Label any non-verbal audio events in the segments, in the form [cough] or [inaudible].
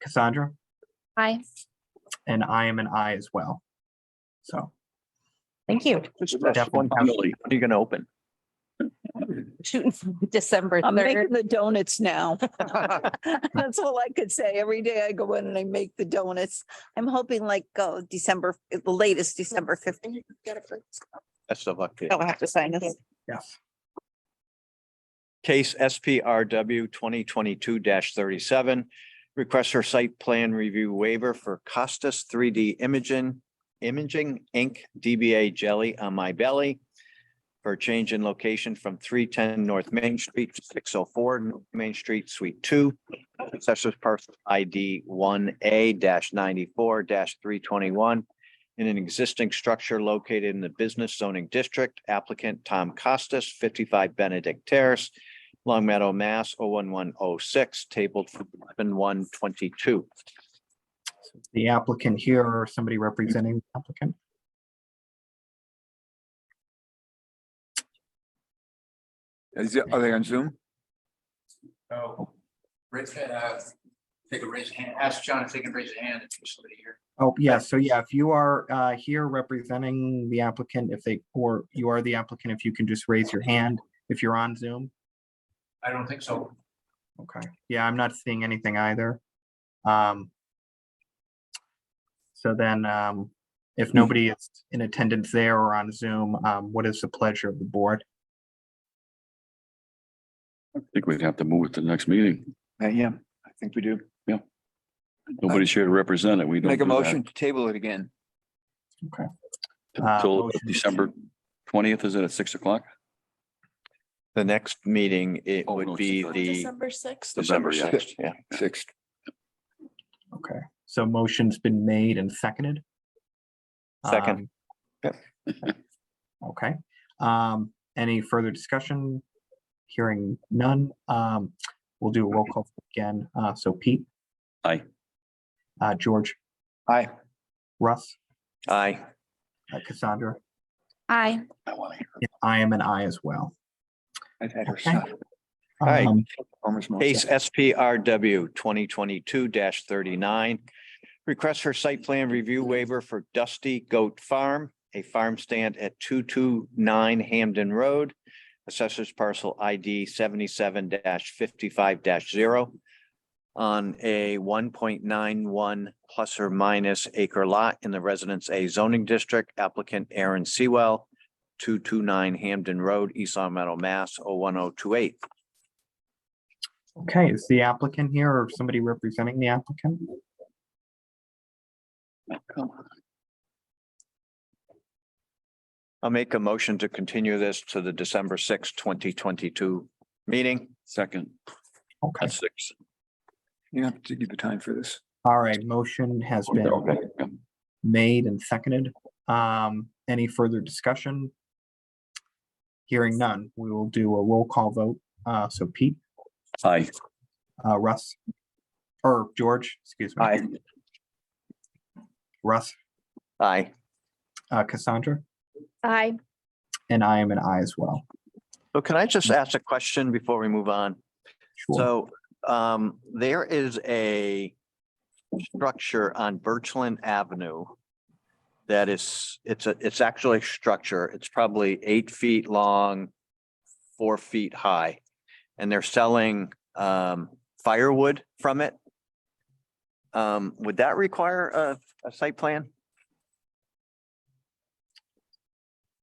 Cassandra, Aye. and I am an I as well. So Thank you. Just that's Definitely. one possibility. What are you gonna open? Shooting for [laughs] December I'm third. making the donuts [laughs] now. That's all I could say. Every day I go in and I make the donuts. I'm hoping like, oh, December, the latest December fifteenth. Best of luck. to you. I'll have to sign this. yes, Case SPRW twenty twenty-two thirty-seven. Request for site plan review waiver for Costas three D Imaging, Imaging Inc., DBA Jelly on My Belly. For a change in location from three ten North Main Street, to six oh four Main Street, Suite two. Assessors parcel ID one A ninety-four three twenty-one. In an existing structure located in the business zoning district, applicant Tom Costas, fifty-five Benedict Terrace. Long Meadow, Mass, 01106, tabled for eleven one twenty-two. the applicant here or somebody representing the applicant. Is it, are they on Zoom? Oh, raise, uh, take a raise hand, ask John if they can raise a hand if there's somebody here. Oh, yeah. So yeah, if you are uh, here representing the applicant, if they, or you are the applicant, if you can just raise your hand if you're on Zoom. I don't think so. Okay, yeah, I'm not seeing anything either. Um. So then, um, if nobody is in attendance there or on Zoom, um, what is the pleasure of the board? I think we'd have to move it to the next meeting. Uh, Yeah, I think we do. Nobody's here to represent it. We don't. Make a do that motion to table it again. Uh, Till motion. December twentieth, is it at six o'clock? The next meeting, it Oh, no, would be the sixth. December December, yeah. sixth, yeah. Six. Okay, so motion's been made and seconded. Second. Um, [laughs] Okay, um, any further discussion? Hearing none, um, we'll do a roll call again. Uh, so Pete? Aye. Uh, George, Aye. Russ, Aye. uh, Cassandra, Aye. I want to hear. Yeah, I am an I as well. I've had her Okay. son. Aye. Um, Farmer's market. Case SPRW twenty twenty-two thirty-nine. Request for site plan review waiver for Dusty Goat Farm, a farm stand at two two nine Hamden Road. Assessors parcel ID seventy-seven fifty-five zero. On a one point nine one plus or minus acre lot in the Residence A zoning district, applicant Aaron Sewell. Two two nine Hamden Road, East Long Meadow, Mass. 01028. Okay, is the applicant here or somebody representing the applicant? Come on. I'll make a motion to continue this to the December sixth, twenty twenty-two meeting. Second, Okay, at six. You have to give the time for this. all right, motion has been Okay. made and seconded. Um, any further discussion? Hearing none, we will do a roll call vote. Uh, so Pete, Aye. uh, Russ, or George, excuse me. Aye. Russ, Aye. uh, Cassandra, Aye. and I am an I as well. So can I just ask a question before we move on? Sure. So um, there is a structure on Birchland Avenue that is, it's a, it's actually a structure. It's probably eight feet long, four feet high. And they're selling um, firewood from it. Um, Would that require a, a site plan?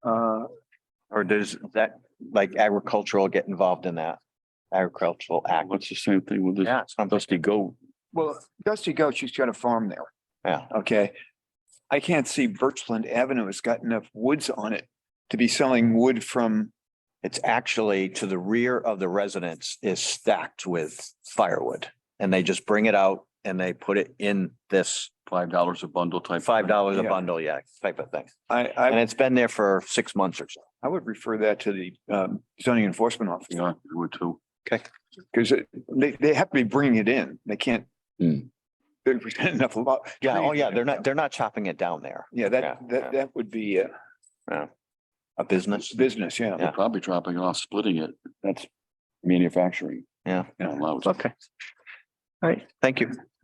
Uh, Or does that, like agricultural get involved in that? Agricultural act? What's the same thing with this Yeah, it's something- dusty goat? well, Dusty Goat, she's got a farm there. yeah. Okay. I can't see Birchland Avenue has got enough woods on it to be selling wood from, It's actually to the rear of the residence is stacked with firewood. And they just bring it out and they put it in this Five dollars a bundle type. five dollars a Yeah. bundle, yeah, type of thing. I, And I, it's been there for six months or so. I would refer that to the um, zoning enforcement officer. Yeah, I would too. Because they, they have to be bringing it in. They can't. [laughs] Hmm. There's enough lot. Yeah, oh trees yeah, in they're it. not, they're not chopping it down there, Yeah, Yeah, that, yeah. that, that would be a a business. business, yeah. Yeah. They're probably dropping off, splitting it. That's manufacturing. Yeah. Not allowed. Okay. All right, thank you.